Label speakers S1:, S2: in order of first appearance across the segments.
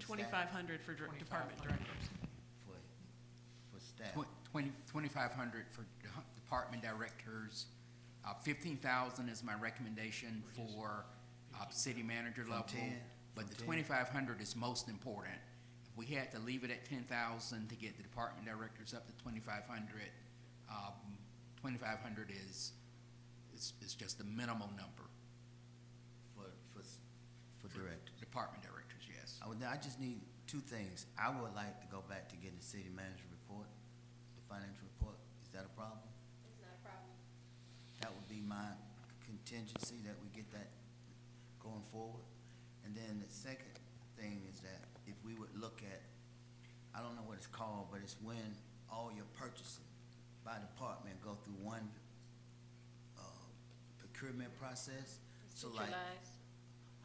S1: twenty-five hundred for dir- department directors.
S2: for, for staff.
S3: Tw- Twenty, twenty-five hundred for d- department directors, uh, fifteen thousand is my recommendation for, uh, city manager level.
S2: 10,
S3: But
S2: from
S3: the
S2: 10.
S3: twenty-five hundred is most important. If we had to leave it at ten thousand to get the department directors up to twenty-five hundred, um, twenty-five hundred is, is, is just the minimal number
S2: For, for, s- for directors.
S3: for department directors, yes.
S2: I would, I just need two things. I would like to go back to getting the city manager report, the financial report. Is that a problem?
S4: It's not a problem.
S2: That would be my contingency, that we get that going forward. And then the second thing is that if we would look at, I don't know what it's called, but it's when all your purchasing by department go through one, uh, procurement process. So like,
S4: Centralized,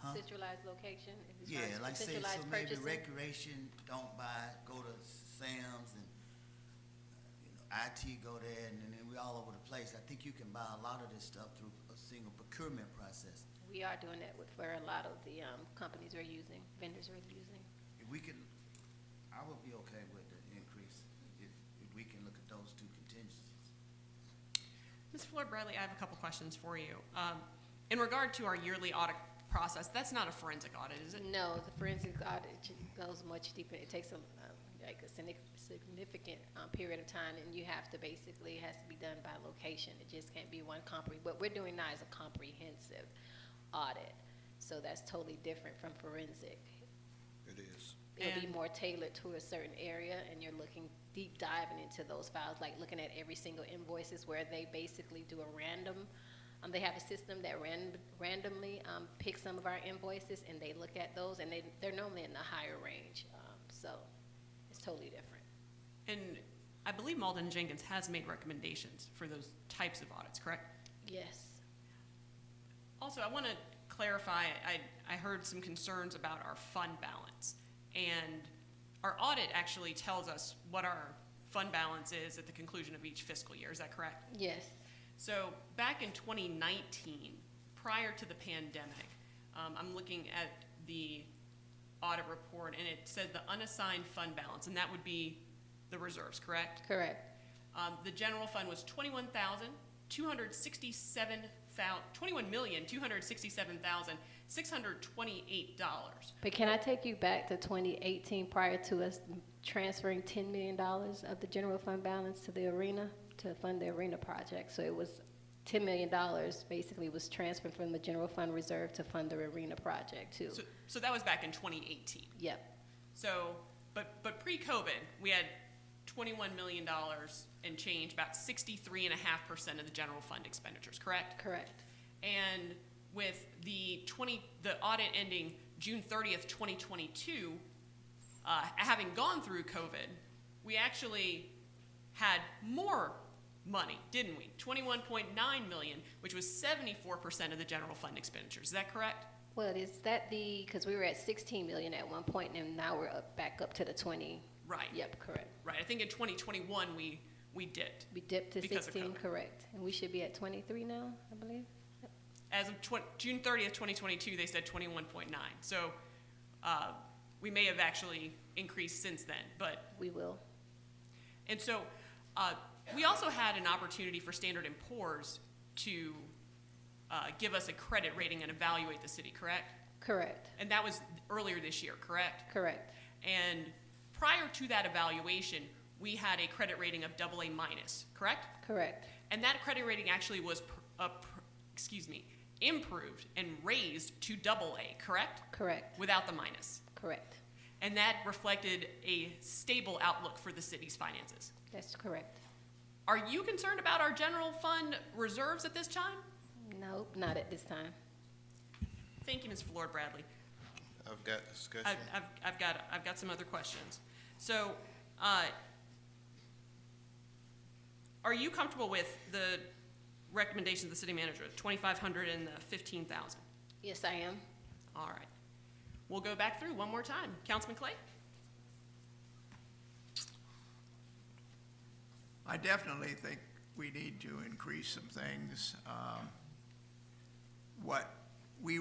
S2: huh?
S4: centralized location. if it's
S2: Yeah,
S4: not
S2: like say, so
S4: centralized
S2: maybe
S4: purchasing.
S2: recreation don't buy, go to Sam's and, you know, IT go there and then we all over the place. I think you can buy a lot of this stuff through a single procurement process.
S4: We are doing that with, for a lot of the, um, companies we're using, vendors we're using.
S2: If we can, I would be okay with the increase if, if we can look at those two contingencies.
S1: Ms. Floyd Bradley, I have a couple questions for you. Um, in regard to our yearly audit process, that's not a forensic audit, is it?
S4: No, the forensic audit ju- goes much deeper. It takes a, um, like a signi- significant, um, period of time and you have to basically, it has to be done by location. It just can't be one compre, what we're doing now is a comprehensive audit. So that's totally different from forensic.
S5: It is.
S4: It'll be
S1: And-
S4: more tailored to a certain area, and you're looking, deep diving into those files, like looking at every single invoices where they basically do a random, um, they have a system that ran, randomly, um, picks some of our invoices, and they look at those, and they, they're normally in the higher range, um, so it's totally different.
S1: And I believe Malden Jenkins has made recommendations for those types of audits, correct?
S4: Yes.
S1: Also, I want to clarify, I, I heard some concerns about our fund balance. And our audit actually tells us what our fund balance is at the conclusion of each fiscal year, is that correct?
S4: Yes.
S1: So back in 2019, prior to the pandemic, um, I'm looking at the audit report and it said the unassigned fund balance, and that would be the reserves, correct?
S4: Correct.
S1: Um, the general fund was 21,267, dollars.
S4: But can I take you back to twenty eighteen, prior to us transferring ten million dollars of the general fund balance to the arena, to fund the arena project? So it was ten million dollars, basically was transferred from the general fund reserve to fund the arena project too.
S1: So, so that was back in 2018.
S4: Yep,
S1: So, but, but pre-COVID, we had $21 million and change, about 63.5% of the general fund expenditures, correct?
S4: correct.
S1: And with the 20, the audit ending June 30th, 2022, uh, having gone through COVID, we actually had more money, didn't we? 21.9 million, which was 74% of the general fund expenditures. Is that correct?
S4: Well, is that the, because we were at sixteen million at one point, and now we're up, back up to the twenty.
S1: Right.
S4: Yep, correct.
S1: Right. I think in 2021 we we dipped.
S4: We dipped to
S1: Because of
S4: sixteen,
S1: COVID.
S4: correct. And we should be at twenty-three now, I believe.
S1: As of twen- June 30th, 2022, they said 21.9. So uh, we may have actually increased since then, but
S4: We will.
S1: And so, uh, we also had an opportunity for Standard and Poor's to uh, give us a credit rating and evaluate the city, correct?
S4: Correct,
S1: And that was earlier this year, correct?
S4: correct,
S1: And prior to that evaluation, we had a credit rating of double A minus, correct?
S4: correct.
S1: And that credit rating actually was, pr- uh, pr- excuse me, improved and raised to double A, correct?
S4: Correct,
S1: Without the minus.
S4: correct.
S1: And that reflected a stable outlook for the city's finances.
S4: That's correct.
S1: Are you concerned about our general fund reserves at this time?
S4: Nope, not at this time.
S1: Thank you, Ms. Flor Bradley.
S5: I've got
S1: I've,
S5: discussion.
S1: I've, I've got, I've got some other questions. So, uh, are you comfortable with the recommendations of the city manager, twenty-five hundred and the fifteen thousand?
S4: Yes, I am.
S1: All right. We'll go back through one more time. Councilman Clay?
S6: I definitely think we need to increase some things. Um, What we